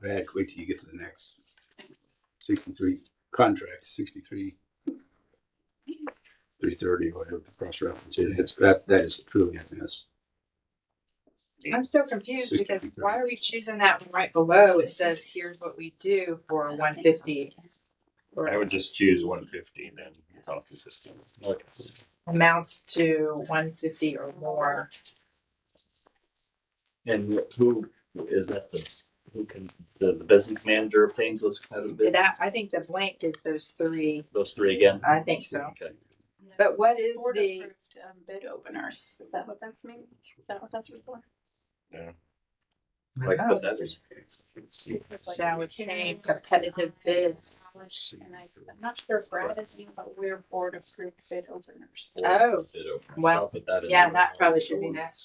back, wait till you get to the next sixty-three contract, sixty-three. Three thirty, whatever, cross reference, it, it's, that, that is truly a mess. I'm so confused Sixty because thirty. why are we choosing that one right below? It says, here's what we do for one fifty. I would just choose one fifty then. It's all consistent. Amounts to one fifty or more. And who is that? The, who can the, the business manager obtains those kind of bids? That, I think the blank is those three. Those three again. I think so. Okay. But what is Board the, approved, um, Bid openers, is that what that's mean? Is that what that's for? Like Oh. put that. It's like- shall we change competitive bids? And I, I'm not sure if Brad is, but we're board approved bid openers. Oh, Bid opener. So Well, I'll put that in yeah, there. that probably should be that.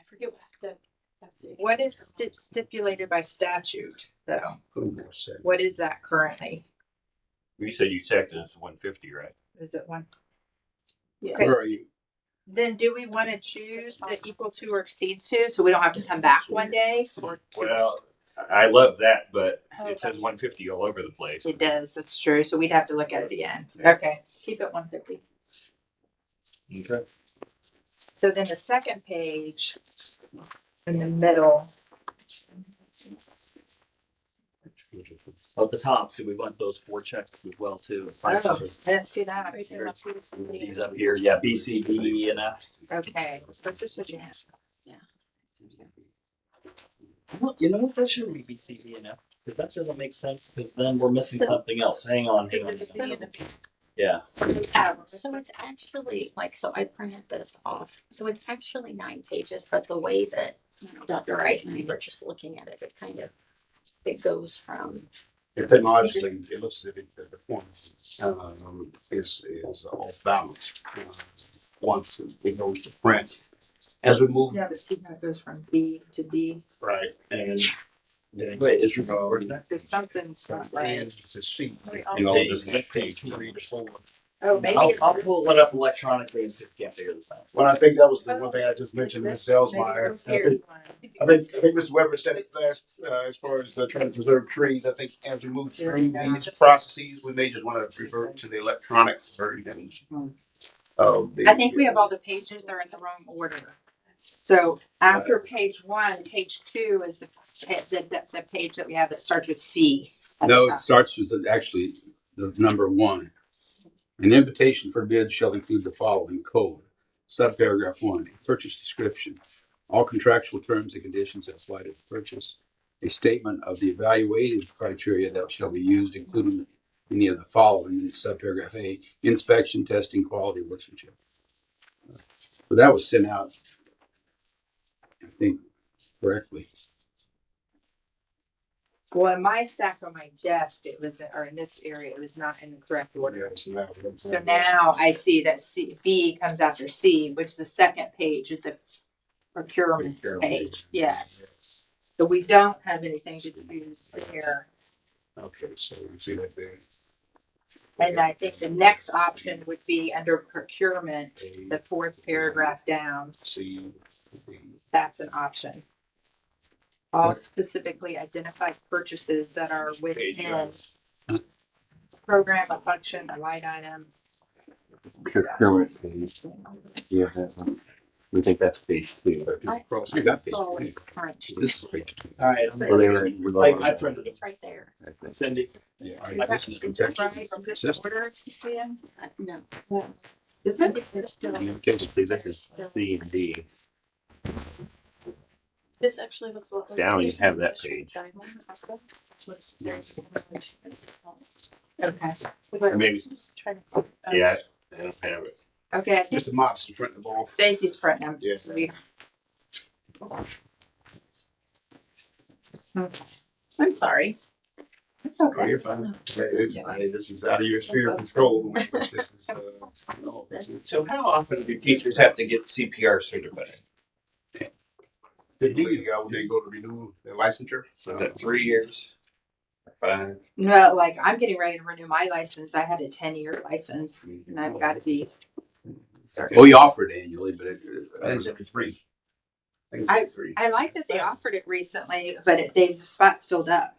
I forget what the, that's it. What is sti- stipulated by statute though? Who knows that? What is that currently? You said you checked and it's one fifty, right? Is it one? Okay. Where are you? Then do we want to choose the equal to or exceeds to, so we don't have to come back one day? or two? Well, I I love that, but Oh, it says gotcha. one fifty all over the place. It does, that's true, so we'd have to look at it again. Yeah. Okay, keep it one fifty. Okay. So then the second page in the middle, At the top, do we want those four checks as well too? It's like- Oh. I didn't see that. Right there, that's what it's- These up here, yeah, B, C, D, E, and F. Okay, but just what you have. Well, you know what? That shouldn't be B, C, D, and F because that doesn't make sense. Because then we're missing So- something else. Hang on, hang on. Is it the- Yeah. Oh, so it's actually like, so I printed this off. So it's actually nine pages, but the way that you know, Dr. Wright and I were just looking at it, it kind of, it goes from, Technologically, it looks as if it- the performance um, is, is off balance. uh, Once it goes to print, as we move. Yeah, but see how it goes from B to D, Right. And. then- Wait, is this- Um, where's that? there's something's not right. It's a sheet. Wait, I'll- You know, Page. this next page, three to four. Oh, maybe I'll, it's. I'll pull one up electronically and see if we can't figure this out. Well, I think that was the one thing I just mentioned, Ms. maybe Elsmeyer. I it's here. think, I think, I think Mr. Weber said it last, uh, as far as uh, trying to preserve trees, I think as we move through these processes, we may just want to revert to the electronic version. of the- Hmm. I think we have all the pages, they're in the wrong order. So after page one, page two is the, the, the, the page that we have that starts with C. at the No, it top. starts with the- actually the number one. An invitation for bids shall include the following code. Subparagraph one, purchase description. All contractual terms and conditions that apply to the purchase. A statement of the evaluated criteria that shall be used, including any of the following, in subparagraph A, inspection, testing, quality, workmanship. But that was sent out, I think, correctly. Well, in my stack on my desk, it was, or in this area, it was not in the correct order. Yeah, so now- So now I see that C, B comes after C, which the second page is a procurement page, yes. So we don't have anything to use here. Okay, so we see that there. And I think the next option would be under procurement, the fourth paragraph down, See. that's an option. All specifically identified purchases that are within program, a function, a line item. procurement page. Yeah, that's one. we think that's page two. I- Cross- I you got saw page it crunched. two. This is page two. All right. Well, they were- we love I- I it. printed- It's right there. Cindy. Yeah, Is that- this is is it contentious. right from this Consistent. order it's supposed to Uh, No. Is it? See, this is E C and D. This actually looks a lot like. Down, you have that page. page. Okay, Maybe, yeah, I don't have it. okay, I think Mr. Mops is printing the ball. Stacy's printing them. Yes. We- Oh, I'm sorry. It's Oh, okay. you're fine. Yeah, it's- I mean, This is out of your sphere of control. This is, uh, no. So how often do teachers have to get CPR certified? They do, uh, when they go to renew their licensure. Is that three years? Five? No, like I'm getting ready to renew my license. I had a ten-year license and I've got to be. Oh, Well, you offer it annually, but it, I think it's every three. I think it's three. I like that they offered it recently, but it, they've, the spots filled up.